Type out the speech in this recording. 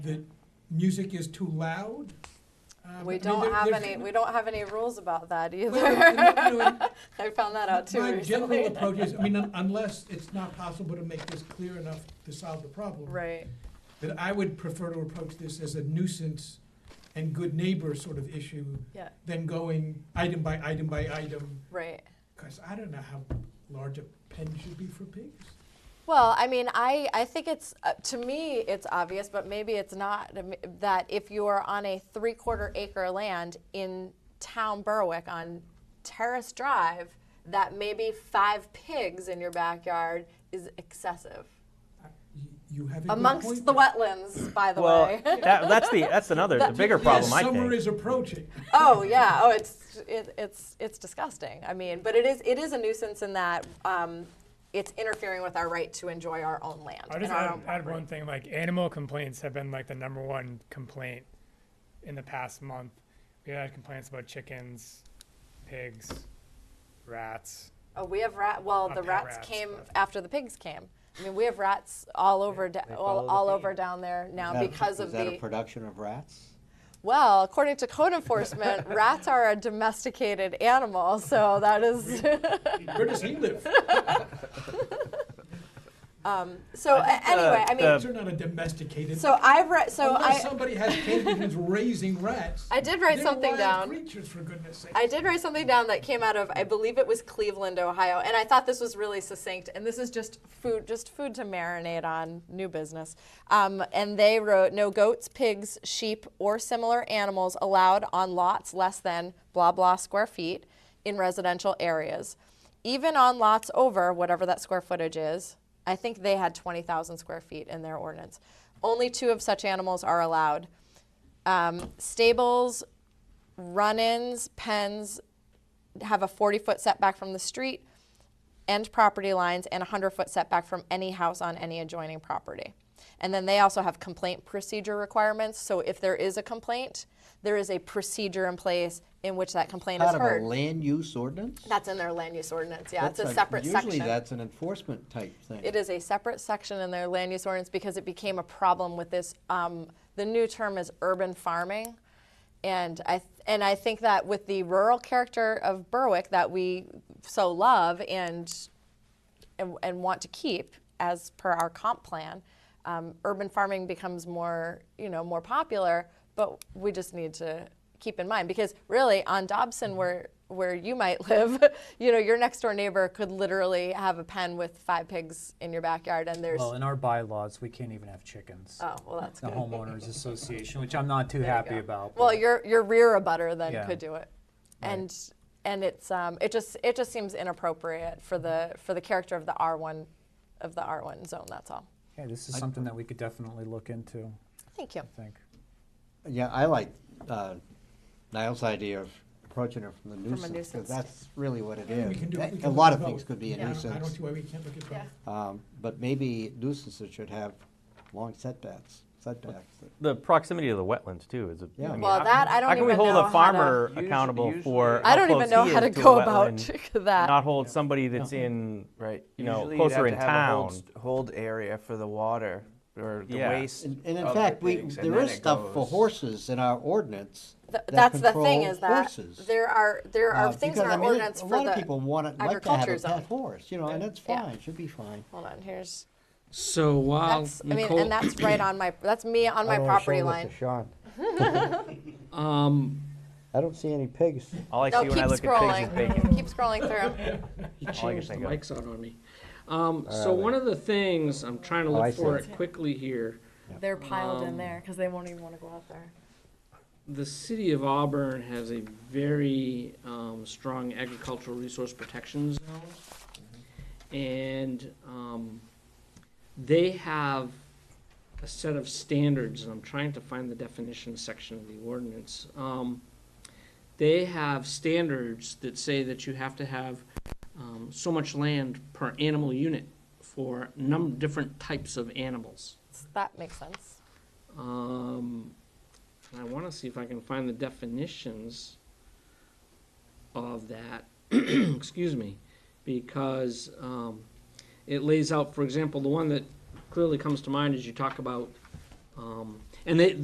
that music is too loud. Uh, but We I mean, don't there- have there's- any, we don't have any rules about that either. Well, and, you know, and I found that out too My general recently. approach is, I mean, un- unless it's not possible to make this clear enough to solve the problem, Right, that I would prefer to approach this as a nuisance and good neighbor sort of issue yeah, than going item by item by item, right. because I don't know how large a pen should be for pigs. Well, I mean, I, I think it's, uh, to me, it's obvious, but maybe it's not, um, that if you are on a three-quarter acre land in town Berwick on Terrace Drive, that maybe five pigs in your backyard is excessive. I- y- You have a good Amongst point the there. wetlands, by the well, way. that, that's the that's another the bigger Yes, problem I Summer think. is approaching. Oh yeah. Oh, it's it, it's it's disgusting. I mean, but it is it is a nuisance in that um, it's interfering with our right to enjoy our own land. I'll just and our add, own add property. one thing, like animal complaints have been like the number one complaint in the past month. We had complaints about chickens, pigs, rats. Oh, we have rat. Well, Not the pet rats, rats, came but- after the pigs came. I mean, we have rats all over da- they follow all, the all theme. over down there now Is that a- because of Is that the. a production of rats? well, according to code enforcement, rats are a domesticated animal, so that is. Where does he live? Um, so I think a- uh, anyway, the- I mean, the- Pigs are not a domesticated. so I've read. So Unless I. somebody has cages and is raising rats. I did write They're something wild down. Creatures, for goodness' sake. I did write something down that came out of, I believe it was Cleveland, Ohio, and I thought this was really succinct. And this is just food, just food to marinate on. New business. Um, and they wrote, no goats, pigs, sheep, or similar animals allowed on lots less than blah blah square feet in residential areas, even on lots over whatever that square footage is. I think they had 20,000 square feet in their ordinance. Only two of such animals are allowed. Um, stables, run-ins, pens have a 40-foot setback from the street and property lines and a 100-foot setback from any house on any adjoining property. And then they also have complaint procedure requirements, so if there is a complaint, there is a procedure in place in which that complaint is Part of a heard. land use ordinance? That's in their land use ordinance, yeah, it's a That's separate Usually section. that's an enforcement type thing. It is a separate section in their land use ordinance because it became a problem with this, um, the new term is urban farming. And I th- and I think that with the rural character of Berwick that we so love and and, and want to keep as per our comp plan, um, urban farming becomes more you know more popular. But we just need to keep in mind because really on Dobson where where you might live, you know your next door neighbor could literally have a pen with five pigs in your backyard and there's Well, in our bylaws, we can't even have chickens. oh well that's The good. homeowners association, which I'm not too There you happy go. about. Well, but- your your rear abutter then Yeah. could do it, and and it's um it just it just seems inappropriate for the for the character of the R one, of the R one zone. That's all. Yeah, this is something that we could definitely look into, Thank you. I think. Yeah, I like uh, Niall's idea of approaching it from the nuisance. 'cause nuisance That's really what it We is. can do- we A- A can lot of look at things both. could be Yeah, a I don't- I don't nuisance, see why we can't look at Yeah. both. um, but maybe nuisances should have long setbacks, setbacks. that- The proximity of the wetlands too is a. Yeah. I mean, Well, how- that I don't how can even we hold know a farmer Usually- accountable usually- for? How to, I how don't even close know he how is to a go about wetland, that. Not hold somebody that's in Right. you know, Usually you'd closer have in to have a town. hold, hold area for the water or the Yeah. waste. And and in of the fact, we, pigs, and there then is it stuff for goes- horses in our ordinance Th- that that's the thing control is that horses. there are there are Uh, things because, in I our mean, it- ordinance for A lot of the. people want it, like to have agriculture a zone. pet horse, you know, and that's Yeah. fine, should be fine. Hold on, here's So while that's I mean, Nicole, and that's right on my that's me on my property line. um, I don't see any pigs. All I No, see when keep I look at pigs is bacon. scrolling. keep scrolling through. he All I can changed the think of. mics out on me. Um, so one of the things, I'm trying to Oh, I look for see. it quickly here. They're piled Um, in there because they won't even want to go out there. The city of Auburn has a very, um, strong agricultural resource protection zone. And, um, they have a set of standards, and I'm trying to find the definition section of the ordinance. Um, they have standards that say that you have to have um, so much land per animal unit for num different types of animals. So that makes sense. Um, and I want to see if I can find the definitions of that. Excuse me, because um, it lays out, for example, the one that clearly comes to mind is you talk about Um, and they,